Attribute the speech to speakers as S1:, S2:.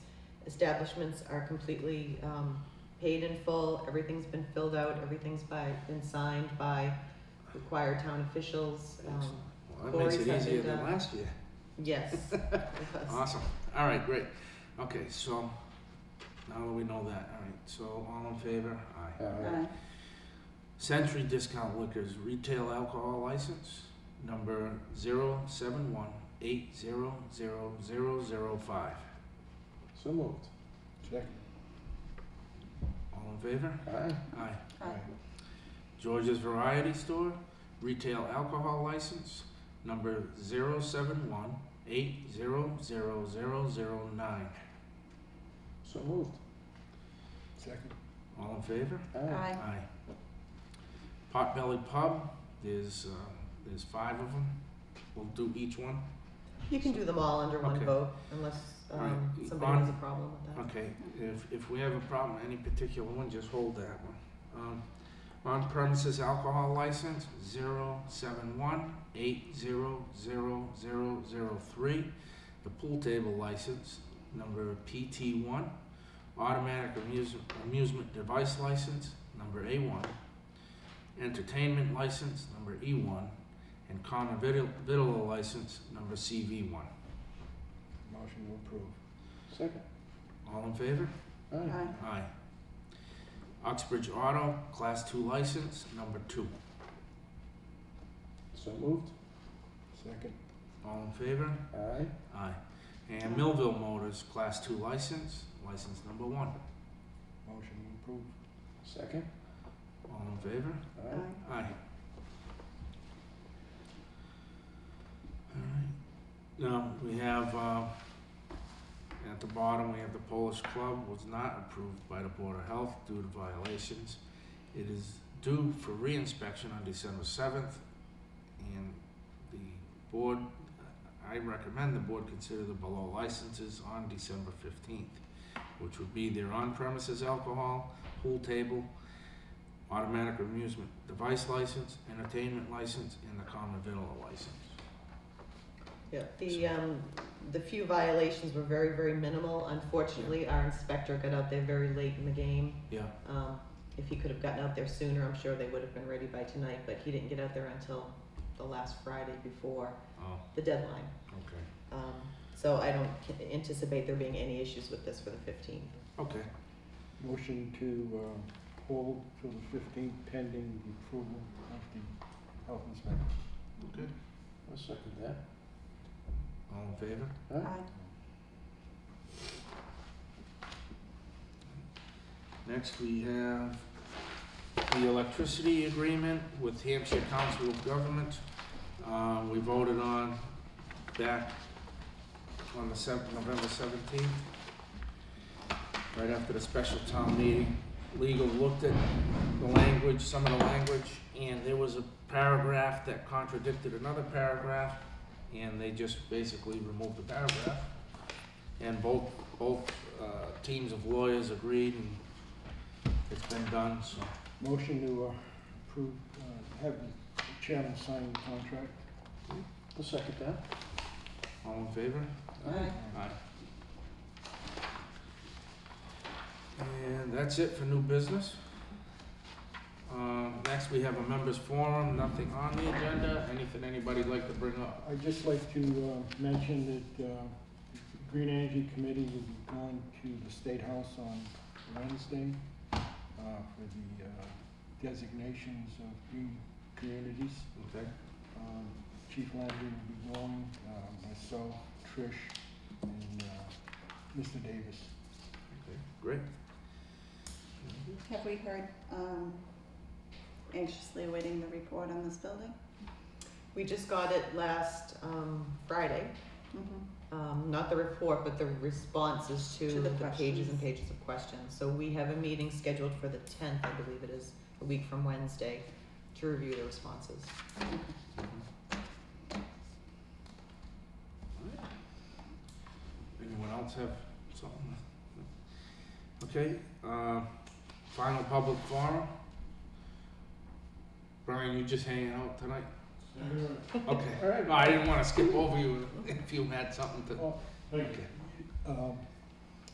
S1: establishments are completely, um, paid in full, everything's been filled out, everything's by, been signed by required town officials, um,
S2: Well, Oh, that makes it
S1: Corey's
S2: easier
S1: having
S2: than
S1: to-
S2: last year.
S1: yes. Because-
S2: Awesome. All right, great. Okay, so now that we know that, all right, so all in favor? Aye.
S3: Aye.
S2: Century Discount Liquors Retail Alcohol License, number zero seven one eight zero zero zero zero five.
S3: So moved. Second.
S2: All in favor?
S3: Aye.
S2: Aye.
S3: Aye.
S2: George's Variety Store Retail Alcohol License, number zero seven one eight zero zero zero zero nine.
S3: So moved. Second.
S2: All in favor?
S3: Aye.
S2: Aye. Potbelly Pub, there's, uh, there's five of them. We'll do each one.
S1: You can do them all under one
S2: Okay.
S1: vote unless, um,
S2: Alright,
S1: somebody has a
S2: on-
S1: problem with that.
S2: Okay, if, if we have a problem, with any particular one, just hold that one. Um, on premises alcohol license, zero seven one eight zero zero zero zero three. The pool table license, number PT one. Automatic amusement, amusement device license, number A one. Entertainment license, number E one. And common vitil, vitilla license, number CV one.
S3: Motion to approve. Second.
S2: All in favor?
S3: Aye.
S2: Aye. Oxbridge Auto, Class 2 license, number 2.
S3: So moved. Second.
S2: All in favor?
S3: Aye.
S2: Aye. And Millville Motors, Class 2 license, license number 1.
S3: Motion to approve. Second.
S2: All in favor?
S3: Aye.
S2: Aye. Alright, now, we have, uh, at the bottom, we have the Polish Club was not approved by the Board of Health due to violations. It is due for reinspection on December seventh, and the board, I recommend the board consider the below licenses on December fifteenth, which would be their on-premises alcohol, pool table, automatic amusement device license, entertainment license, and the common villa license.
S1: Yeah, the, um, the few violations were very, very minimal. Unfortunately, our inspector got out there very late in the game.
S2: Yeah,
S1: Um, if he could have gotten out there sooner, I'm sure they would have been ready by tonight, but he didn't get out there until the last Friday before
S2: oh,
S1: the deadline.
S2: okay.
S1: Um, so I don't ca- anticipate there being any issues with this for the fifteenth.
S2: Okay,
S3: Motion to um, hold till the fifteenth pending the approval of the health inspector.
S2: okay.
S3: I'll second that.
S2: All in favor?
S1: Uh,
S2: Next, we have the electricity agreement with Hampshire Council of Government. Uh, we voted on back on the seventh, November seventeenth. Right after the special town meeting, legal looked at the language, some of the language, and there was a paragraph that contradicted another paragraph, and they just basically removed the paragraph. And both, both, uh, teams of lawyers agreed and it's been done, so.
S3: Motion to uh, approve, uh, have the chairman sign the contract. I'll second that.
S2: All in favor?
S1: Aye.
S2: Aye. And that's it for new business. Um, next, we have a members forum, nothing on the agenda, anything anybody'd like to bring up?
S3: I'd just like to uh, mention that uh, the Green Energy Committee will be going to the State House on Wednesday uh, for the uh, designations of green communities.
S2: Okay,
S3: Um, Chief Landry will be going, uh, myself, Trish, and uh, Mr. Davis.
S2: okay, great.
S4: Have we heard, um, anxiously awaiting the report on this building?
S1: We just got it last, um, Friday,
S4: Mm-hmm.
S1: um, not the report, but the responses to
S4: To the
S1: the pages and
S4: questions.
S1: pages of questions. So we have a meeting scheduled for the tenth, I believe it is, a week from Wednesday, to review the responses.
S2: Anyone else have something? Okay, uh, final public forum. Brian, you just hanging out tonight? Okay.
S3: All right.
S2: No, I didn't wanna skip over you if you had something to,
S3: Oh,
S2: okay,
S3: Um,